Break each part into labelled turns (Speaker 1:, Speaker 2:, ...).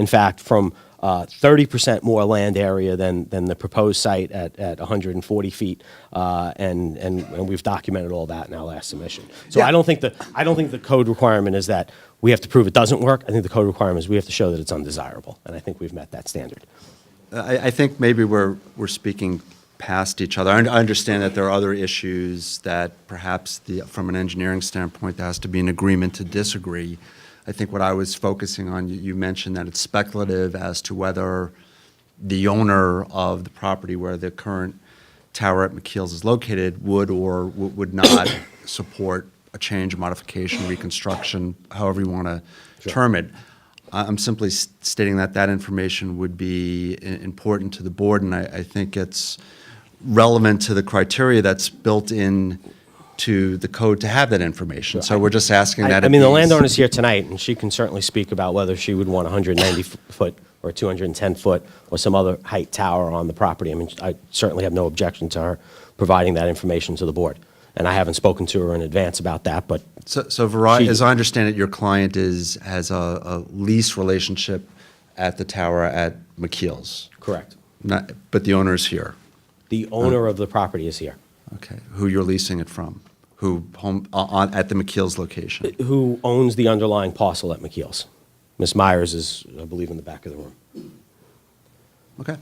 Speaker 1: in fact, from uh, 30% more land area than, than the proposed site at, at 140 feet. Uh, and, and, and we've documented all that in our last submission. So I don't think the, I don't think the code requirement is that we have to prove it doesn't work. I think the code requirement is we have to show that it's undesirable. And I think we've met that standard.
Speaker 2: I, I think maybe we're, we're speaking past each other. I un- I understand that there are other issues that perhaps the, from an engineering standpoint, there has to be an agreement to disagree. I think what I was focusing on, you, you mentioned that it's speculative as to whether the owner of the property where the current tower at McKeel's is located would or w- would not support a change, modification, reconstruction, however you want to term it. I- I'm simply s- stating that that information would be i- important to the board, and I, I think it's relevant to the criteria that's built in to the code to have that information. So we're just asking that.
Speaker 1: I, I
Speaker 2: it
Speaker 1: mean, the
Speaker 2: be-
Speaker 1: landowner's here tonight, and she can certainly speak about whether she would want 190 f- foot or 210 foot or some other height tower on the property. I mean, I certainly have no objection to her providing that information to the board. And I haven't spoken to her in advance about that, but
Speaker 2: So, so Verizon,
Speaker 1: She-
Speaker 2: as I understand it, your client is, has a, a lease relationship at the tower at McKeel's,
Speaker 1: correct.
Speaker 2: not, but the owner's here,
Speaker 1: The owner of the property is here,
Speaker 2: okay, who you're leasing it from, who home, uh, on, at the McKeel's location.
Speaker 1: who owns the underlying parcel at McKeel's. Ms. Myers is, I believe, in the back of the room.
Speaker 2: Okay.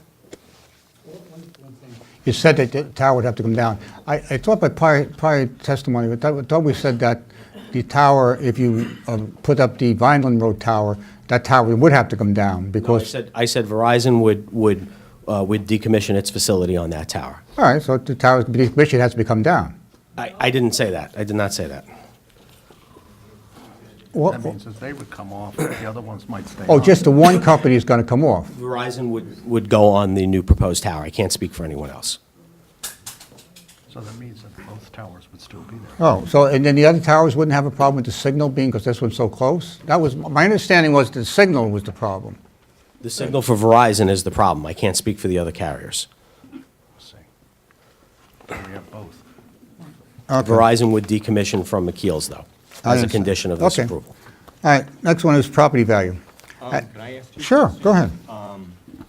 Speaker 3: You said that the tower would have to come down. I, I thought by prior, prior testimony, I thought, I thought we said that the tower, if you uh, put up the Vineland Road tower, that tower would have to come down
Speaker 1: No, I
Speaker 3: because,
Speaker 1: said, I said Verizon would, would, uh, would decommission its facility on that tower.
Speaker 3: all right, so the tower, the commission has to be come down.
Speaker 1: I, I didn't say that. I did not say that.
Speaker 3: What-
Speaker 4: That means that they would come off, but the other ones might stay
Speaker 3: Oh,
Speaker 4: on.
Speaker 3: just the one company is going to come off.
Speaker 1: Verizon would, would go on the new proposed tower. I can't speak for anyone else.
Speaker 4: So that means that both towers would still be there.
Speaker 3: Oh, so, and then the other towers wouldn't have a problem with the signal being, because this one's so close? That was, my understanding was the signal was the problem.
Speaker 1: The signal for Verizon is the problem. I can't speak for the other carriers.
Speaker 4: Let's see. We have both.
Speaker 1: Verizon would decommission from McKeel's, though, as
Speaker 3: I
Speaker 1: a
Speaker 3: understand.
Speaker 1: condition of this
Speaker 3: Okay.
Speaker 1: approval.
Speaker 3: All right, next one is property value.
Speaker 1: Um,
Speaker 3: Uh,
Speaker 5: Can I ask two
Speaker 3: Sure,
Speaker 5: questions?
Speaker 3: go ahead.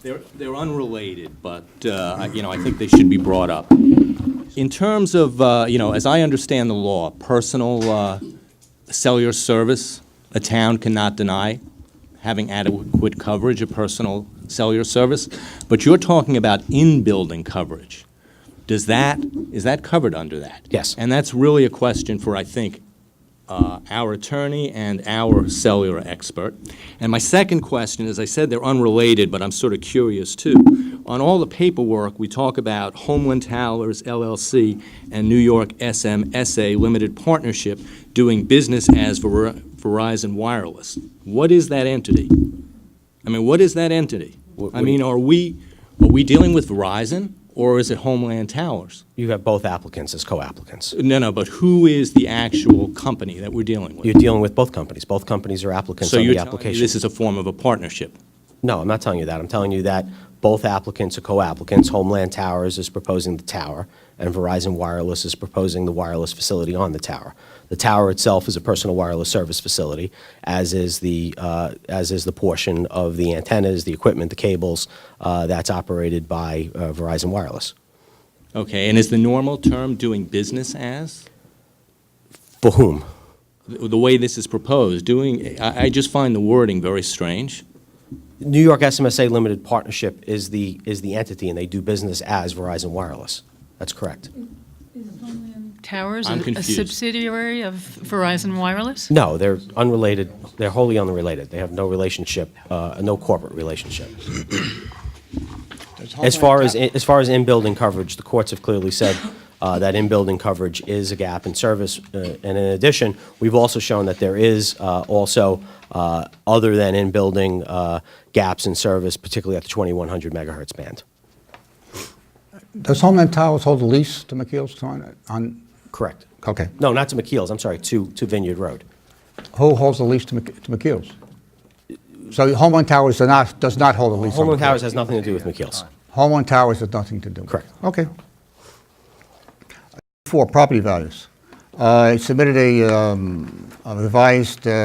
Speaker 5: They're they're unrelated, but, uh, I- you know, I think they should be brought up. In terms of, uh, you know, as I understand the law, personal uh, cellular service, a town cannot deny having adequate coverage of personal cellular service, but you're talking about in-building coverage. Does that, is that covered under that?
Speaker 1: Yes.
Speaker 5: And that's really a question for, I think, uh, our attorney and our cellular expert. And my second question, as I said, they're unrelated, but I'm sort of curious too. On all the paperwork, we talk about Homeland Towers LLC and New York SMSA Limited Partnership doing business as Ver- Verizon Wireless. What is that entity? I mean, what is that entity?
Speaker 1: What-
Speaker 5: I mean, are we, are we dealing with Verizon or is it Homeland Towers?
Speaker 1: You have both applicants as co-applicants.
Speaker 5: No, no, but who is the actual company that we're dealing with?
Speaker 1: You're dealing with both companies. Both companies are applicants
Speaker 5: So
Speaker 1: on
Speaker 5: you're
Speaker 1: the
Speaker 5: telling me
Speaker 1: application.
Speaker 5: this is a form of a partnership?
Speaker 1: No, I'm not telling you that. I'm telling you that both applicants are co-applicants. Homeland Towers is proposing the tower, and Verizon Wireless is proposing the wireless facility on the tower. The tower itself is a personal wireless service facility, as is the, uh, as is the portion of the antennas, the equipment, the cables, uh, that's operated by uh, Verizon Wireless.
Speaker 5: Okay, and is the normal term doing business as?
Speaker 1: For whom?
Speaker 5: The the way this is proposed, doing, I, I just find the wording very strange.
Speaker 1: New York SMSA Limited Partnership is the, is the entity, and they do business as Verizon Wireless. That's correct.
Speaker 6: Towers,
Speaker 5: I'm
Speaker 6: a- a
Speaker 5: confused.
Speaker 6: subsidiary of Verizon Wireless?
Speaker 1: No, they're unrelated, they're wholly unrelated. They have no relationship, uh, no corporate relationship. As far as, as far as in-building coverage, the courts have clearly said uh, that in-building coverage is a gap in service. uh, And in addition, we've also shown that there is uh, also, uh, other than in-building, uh, gaps in service, particularly at the 2100 megahertz band.
Speaker 3: Does Homeland Towers hold a lease to McKeel's on, on,
Speaker 1: Correct.
Speaker 3: okay.
Speaker 1: No, not to McKeel's, I'm sorry, to, to Vineyard Road.
Speaker 3: Who holds the lease to Mc- to McKeel's? So Homeland Towers does not, does not hold a lease on
Speaker 1: Homeland
Speaker 3: McKeel's?
Speaker 1: Towers has nothing to do with McKeel's.
Speaker 3: Homeland Towers has nothing to do with it?
Speaker 1: Correct.
Speaker 3: Okay. Four, property values. Uh, I submitted a um, a revised uh,